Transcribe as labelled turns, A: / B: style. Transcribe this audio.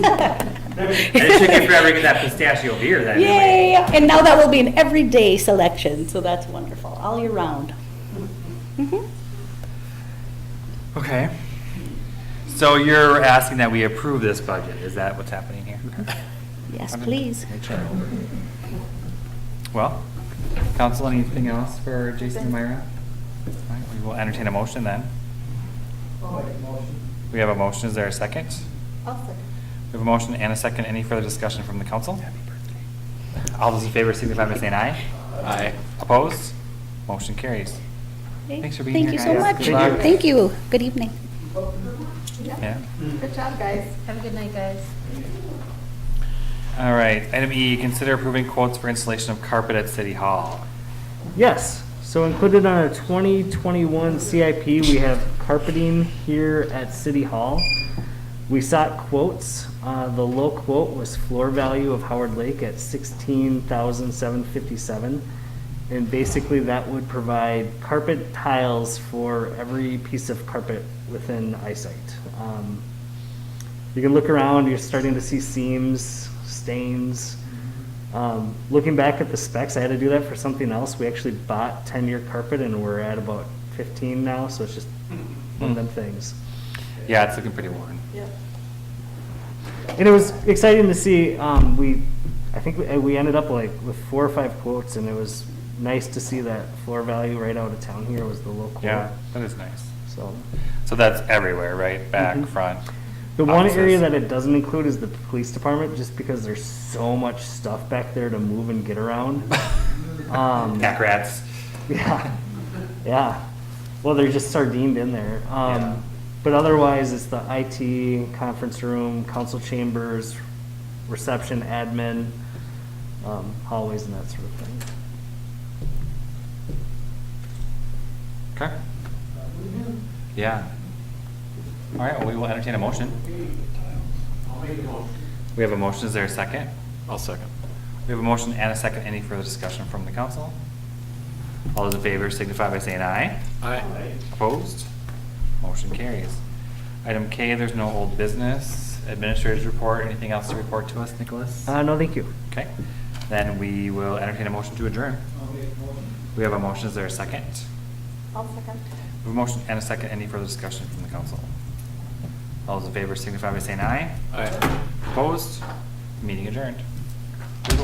A: And it took you forever to get that pistachio beer then.
B: Yay! And now that will be an everyday selection, so that's wonderful, all year round.
A: Mm-hmm.
B: Mhm.
A: Okay. So you're asking that we approve this budget, is that what's happening here?
B: Yes, please.
A: Make sure. Well, council, anything else for Jason and Myra? All right, We will entertain a motion then. We have a motion, is there a second? We have a motion and a second, any further discussion from the council? All those in favor signify by saying aye. Aye. Opposed? Motion carries.
B: Okay.
A: Thanks for being here, guys.
B: Thank you so
A: Good
B: much.
A: luck.
B: Thank you. Good evening.
A: Yeah.
C: Good job, guys.
D: Have a good night, guys.
A: All right, item E, consider approving quotes for installation of carpet at City Hall.
E: Yes, so included on our 2021 CIP, we have carpeting here at City Hall. We sought quotes. Uh, The low quote was floor value of Howard Lake at $16,757. And basically, that would provide carpet tiles for every piece of carpet within eyesight. Um, You can look around, you're starting to see seams, stains. Um, looking back at the specs, I had to do that for something else. We actually bought 10 year carpet and we're at about 15 now, so it's just one of them things.
A: Yeah, it's looking pretty worn.
E: And it was exciting to see. Um, we, I think we, we ended up like with four or five quotes, and it was nice to see that floor value right out of town here was the low quote.
A: Yeah, that is nice.
E: So
A: So that's everywhere, right? Back,
E: Mhm.
A: front?
E: The one
A: offices.
E: area that it doesn't include is the police department, just because there's so much stuff back there to move and get around. um,
A: Pack rats.
E: Yeah, yeah. Well, they're just sardined in there.
A: Yeah.
E: Um, but otherwise, it's the IT, conference room, council chambers, reception, admin, um, hallways and that sort of thing.
A: Okay. Yeah. All right, well, we will entertain a motion. We have a motion, is there a second? I'll second. We have a motion and a second, any further discussion from the council? All those in favor signify by saying aye. Aye. Opposed? Motion carries. Item K, there's no old business, administrator's report, anything else to report to us, Nicholas?
E: Uh, no, thank you.
A: Okay, then we will entertain a motion to adjourn. We have a motion, is there a second?
C: I'll second.
A: We have a motion and a second, any further discussion from the council? All those in favor signify by saying aye. Aye. Opposed? Meeting adjourned.